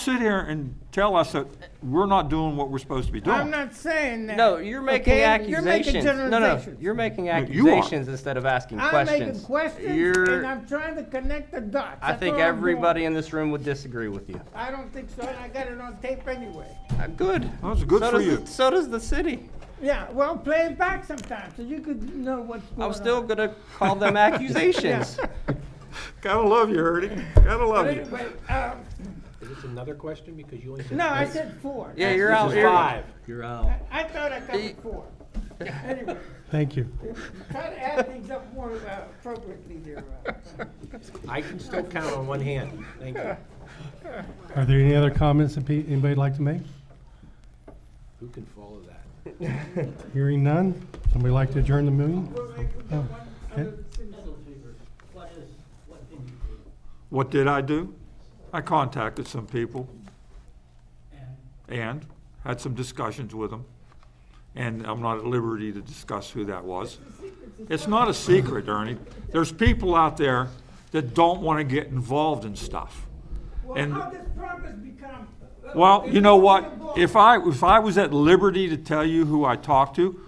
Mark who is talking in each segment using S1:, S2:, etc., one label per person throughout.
S1: sit here and tell us that we're not doing what we're supposed to be doing.
S2: I'm not saying that.
S3: No, you're making
S2: okay? You're
S3: accusations.
S2: making
S3: No, no,
S2: generalizations.
S3: you're making
S1: you are.
S3: accusations instead of asking
S2: I'm making
S3: questions.
S2: questions,
S3: You're-
S2: and I'm trying to connect the dots.
S3: I
S2: That's
S3: think
S2: all I'm doing.
S3: everybody in this room would disagree with you.
S2: I don't think so, and I got it on tape anyway.
S3: Uh, Good.
S1: That's good
S3: So
S1: for
S3: does the-
S1: you.
S3: So does the city.
S2: Yeah, well, play it back sometime, so you could know what's going on.
S3: I'm still gonna call them accusations.
S1: Gotta love you, Ernie. Gotta
S2: But
S1: love
S2: anyway, um,
S4: Is this another question? Because you only said.
S2: no, I
S4: this
S2: said four.
S3: Yeah, you're
S4: is
S3: out here.
S4: Five. You're out.
S2: I thought I covered four. Anyway,
S4: Thank you.
S2: try to add things up more uh, appropriately there. uh,
S4: I can still count on one hand. Thank you.
S5: Are there any other comments that pe- anybody'd like to make?
S4: Who can follow that?
S5: Hearing none? Somebody like to adjourn the meeting? Oh, okay.
S1: What did I do? I contacted some people. And had some discussions with them. And I'm not at liberty to discuss who that was. It's not a secret, Ernie. There's people out there that don't want to get involved in stuff.
S2: Well,
S1: And-
S2: how does progress become? uh,
S1: Well, you know what?
S2: involved?
S1: If I, if I was at liberty to tell you who I talked to,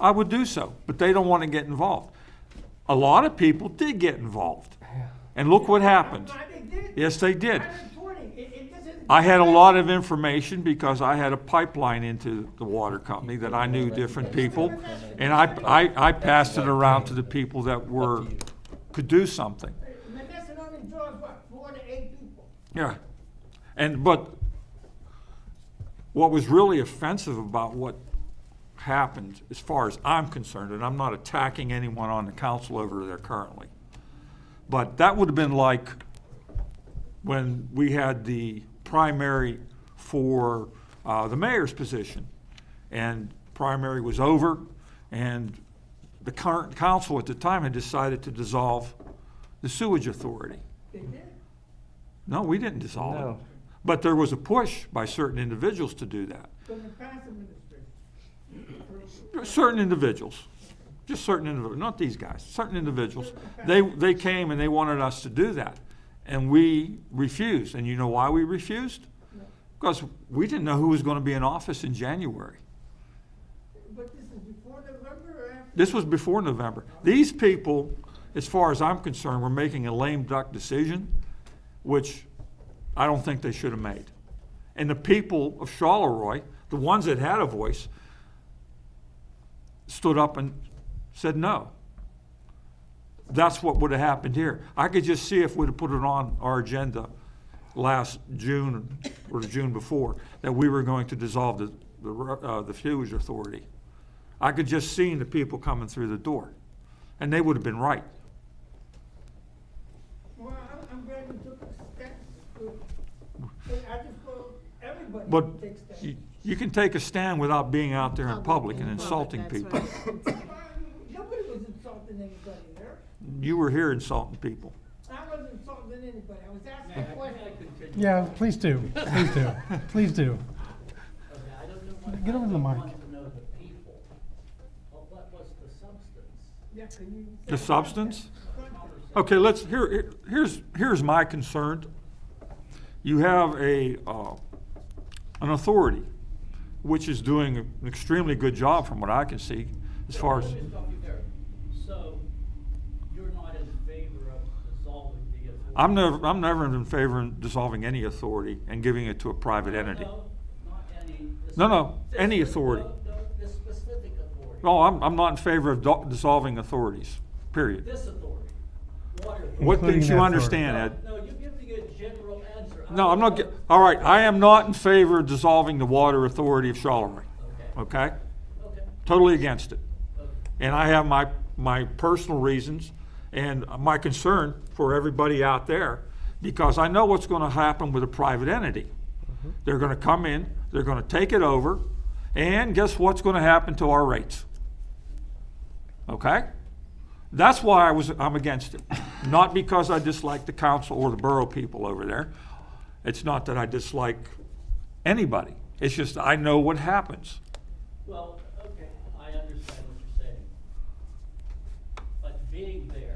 S1: I would do so, but they don't want to get involved. A lot of people did get involved. And look what happened.
S2: Uh, I did-
S1: Yes, they did.
S2: I'm reporting. It- it doesn't-
S1: I had a lot of information because I had a pipeline into the water company that I knew different people. And I, I, I passed it around to the people that were, could do something.
S2: Menneson only draws what, four to eight people?
S1: Yeah. And, but what was really offensive about what happened, as far as I'm concerned, and I'm not attacking anyone on the council over there currently, but that would have been like when we had the primary for uh, the mayor's position. And primary was over, and the current council at the time had decided to dissolve the sewage authority.
S2: They did.
S1: No, we didn't dissolve it.
S3: No.
S1: But there was a push by certain individuals to do that.
S2: From the past administration.
S1: Certain individuals, just certain individuals, not these guys, certain individuals. They, they came and they wanted us to do that. And we refused. And you know why we refused? Because we didn't know who was going to be in office in January.
S2: But this is before November or after?
S1: This was before November. These people, as far as I'm concerned, were making a lame duck decision, which I don't think they should have made. And the people of Charleroi, the ones that had a voice, stood up and said no. That's what would have happened here. I could just see if we'd have put it on our agenda last June or the June before, that we were going to dissolve the, the, ru- uh, the Fuels Authority. I could just seen the people coming through the door, and they would have been right.
S2: Well, I'm, I'm glad you took a step. But I just thought everybody
S1: But
S2: should take steps.
S1: you, you can take a stand without being out there in public and insulting people.
S2: Nobody was insulting anybody there.
S1: You were here insulting people.
S2: I wasn't insulting anybody. I was asking a question.
S5: Yeah, please do, please do, please do.
S6: Okay, I don't know what.
S5: Get over
S6: I
S5: the
S6: don't
S5: mic.
S6: want to know the people, but what was the substance?
S2: Yeah, can you-
S1: The substance? Okay, let's, here, here- here's, here's my concern. You have a, uh, an authority which is doing an extremely good job from what I can see as far as,
S6: Let me stop you there. So you're not in favor of dissolving the authority?
S1: I'm never, I'm never in favor of dissolving any authority and giving it to a private entity.
S6: No, not any. this-
S1: No, no,
S6: this-
S1: any
S6: no,
S1: authority.
S6: No, this specific authority.
S1: No, I'm, I'm not in favor of do- dissolving authorities, period.
S6: This authority, water. authority.
S1: What didn't
S5: Including that
S1: you
S5: authority.
S1: understand,
S6: No,
S1: Ed?
S6: no, you're giving a general answer. I
S1: No, I'm
S6: don't
S1: not, ge-
S6: know.
S1: all right, I am not in favor of dissolving the Water Authority of Charleroi,
S6: Okay,
S1: okay?
S6: okay,
S1: Totally against it.
S6: okay.
S1: And I have my, my personal reasons and my concern for everybody out there because I know what's going to happen with a private entity. They're going to come in, they're going to take it over, and guess what's going to happen to our rates? Okay? That's why I was, I'm against it. Not because I dislike the council or the borough people over there. It's not that I dislike anybody. It's just I know what happens.
S6: Well, okay, I understand what you're saying. But being there